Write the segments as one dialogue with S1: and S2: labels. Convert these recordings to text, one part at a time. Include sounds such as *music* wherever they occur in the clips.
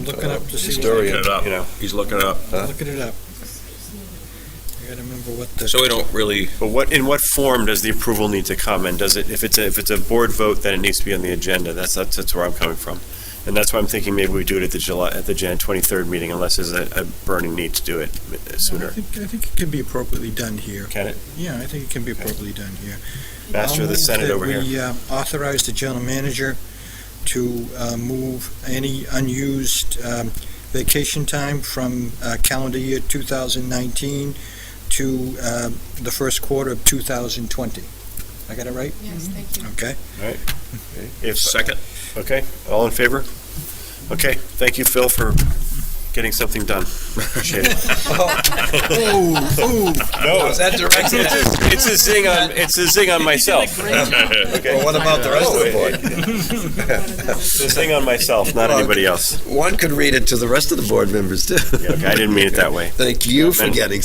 S1: I'm looking up to see. what-
S2: Historian.
S3: Looking it up.
S2: You know.
S3: He's looking it up.
S1: Looking it up. I gotta remember what the.
S3: So we don't really,
S2: But what, in what form does the approval need to come? And does it, if it's, a- if it's a board vote, then it needs to be on the agenda. That's, that's that's where I'm coming from. And that's why I'm thinking maybe we do it at the July, at the Jan 23rd meeting unless there's a a burning need to do it
S1: I
S2: sooner.
S1: think, I think it can be appropriately done here.
S2: Can it?
S1: Yeah, I think it can be appropriately done here.
S2: Master of the
S1: I'll move
S2: Senate
S1: that
S2: over here.
S1: We uh, authorize the general manager to uh, move any unused um, vacation time from uh, calendar year 2019 to uh, the first quarter of 2020. I got it right?
S4: Yes, thank you.
S1: Okay.
S2: If,
S3: second,
S2: okay, all in favor? Okay, thank you, Phil, for getting something done.
S5: *laughs*
S2: Appreciate it.
S1: Oh, oh,
S2: No,
S5: that
S2: it's
S5: directed?
S2: a- it's a zing on, it's a zing on myself.
S5: *laughs*
S2: Oh,
S5: Well, what about the rest of the board?
S2: It's a zing on myself, not anybody
S5: *laughs*
S2: else.
S5: One could read it to the rest of the board members, too.
S2: Yeah, okay, I didn't mean it that way.
S5: Thank you for
S2: And-
S5: getting.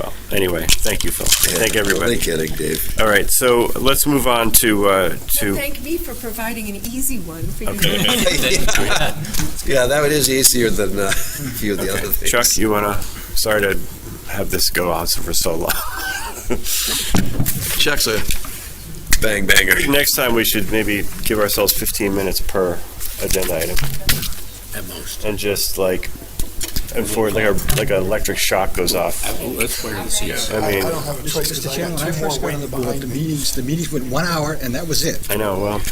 S2: Well, anyway, thank you, Phil. Thank everybody.
S5: Only kidding,
S2: *laughs*
S5: Dave.
S2: All right, so let's move on to, uh,
S4: Well,
S2: to,
S4: thank me for providing an easy one for you.
S3: *laughs*
S5: *laughs* Yeah, that is easier than uh, *laughs* a few of the other things.
S2: Chuck, you wanna, sorry to have this go on for so long. *laughs*
S5: Chuck's a bang banger.
S2: Next time, we should maybe give ourselves 15 minutes per agenda item. At most. And just like, enforce, like a, like an electric shock goes off.
S3: let's wait and see.
S2: I mean,
S6: don't have a choice
S1: Mr.
S6: because
S1: Chairman,
S6: I
S1: when I
S6: got two more
S1: first got on the
S6: waiting
S1: board,
S6: behind
S1: the
S6: me.
S1: meetings, the meetings went one hour, and that was it.
S2: I know, well,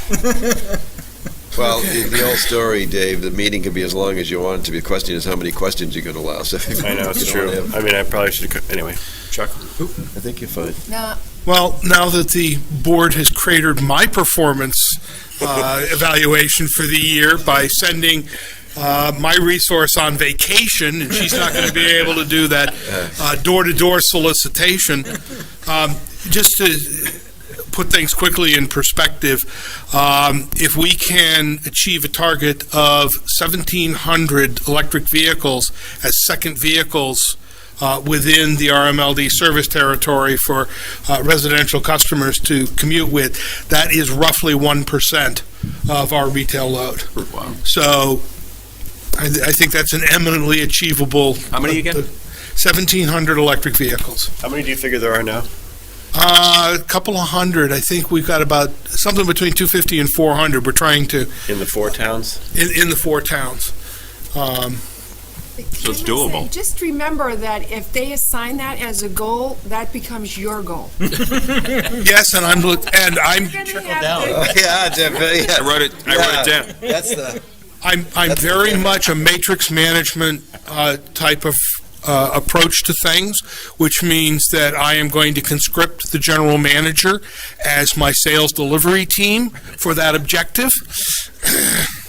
S5: Well, the the old story, Dave, the meeting can be as long as you want it to be. The question is how many questions you're going to allow. So
S2: I
S5: *laughs*
S2: know, it's true. I mean, I probably should, co- anyway. Chuck?
S5: I think you're fine.
S4: Now,
S7: Well, now that the board has cratered my performance uh, *laughs* evaluation for the year by sending uh, my resource on vacation, and she's not going to be able to do that uh, door-to-door solicitation, um, just to put things quickly in perspective, um, if we can achieve a target of 1,700 electric vehicles as second vehicles uh, within the RMLD service territory for uh, residential customers to commute with, that is roughly 1% of our retail load. So I, th- I think that's an eminently achievable.
S3: How many again?
S7: 1,700 electric vehicles.
S2: How many do you figure there are now?
S7: Uh, A couple of hundred. I think we've got about something between 250 and 400. We're trying to,
S2: In the four towns?
S7: in, in the four towns. Um,
S4: So
S3: it's doable.
S4: Just remember that if they assign that as a goal, that becomes your goal.
S3: Hmm.
S7: Yes, and I'm, look- and I'm,
S4: down.
S5: Oh, *laughs* Yeah, Jeff,
S3: I
S5: yeah.
S3: wrote it, I wrote it down.
S5: That's the,
S7: I'm, I'm
S5: That's
S7: very
S5: okay.
S7: much a matrix management uh, type of uh, approach to things, which means that I am going to conscript the general manager as my sales delivery team for that objective.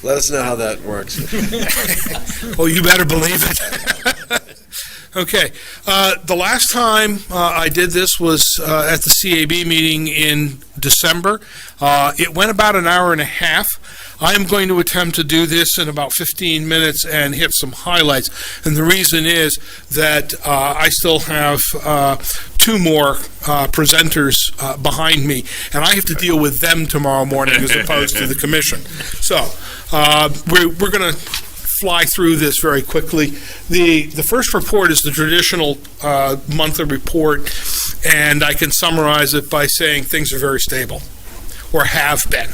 S5: let us know how that works.
S7: Oh, you better believe it. *laughs* okay. Uh, the last time uh, I did this was uh, at the CAB meeting in December. Uh, it went about an hour and a half. I am going to attempt to do this in about 15 minutes and hit some highlights. And the reason is that uh, I still have uh, two more uh, presenters uh, behind me, and I have to deal with them tomorrow morning as opposed to the commission. So uh, we're, we're going to fly through this very quickly. The, the first report is the traditional uh, monthly report, and I can summarize it by saying things are very stable, or have been.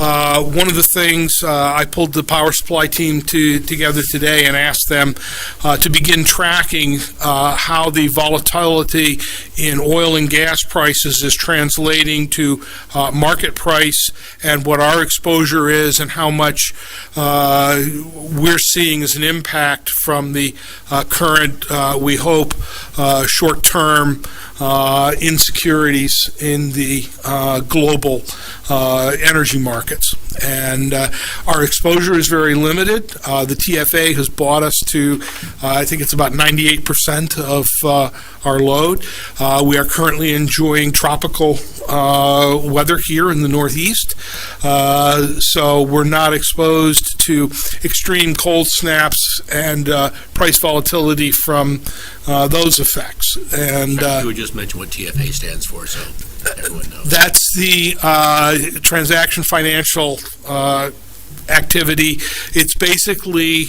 S7: Uh, One of the things, uh, I pulled the power supply team to, together today and asked them uh, to begin tracking uh, how the volatility in oil and gas prices is translating to uh, market price and what our exposure is and how much uh, we're seeing as an impact from the uh, current, uh, we hope, uh, short-term uh, insecurities in the uh, global uh, energy markets. And uh, our exposure is very limited. Uh, The TFA has bought us to, uh, I think it's about 98% of uh, our load. Uh, We are currently enjoying tropical uh, weather here in the Northeast. Uh, So we're not exposed to extreme cold snaps and uh, price volatility from uh, those effects. And uh,
S8: You would just mention what TFA stands for, so everyone knows.
S7: that's the uh, transaction financial uh, activity. It's basically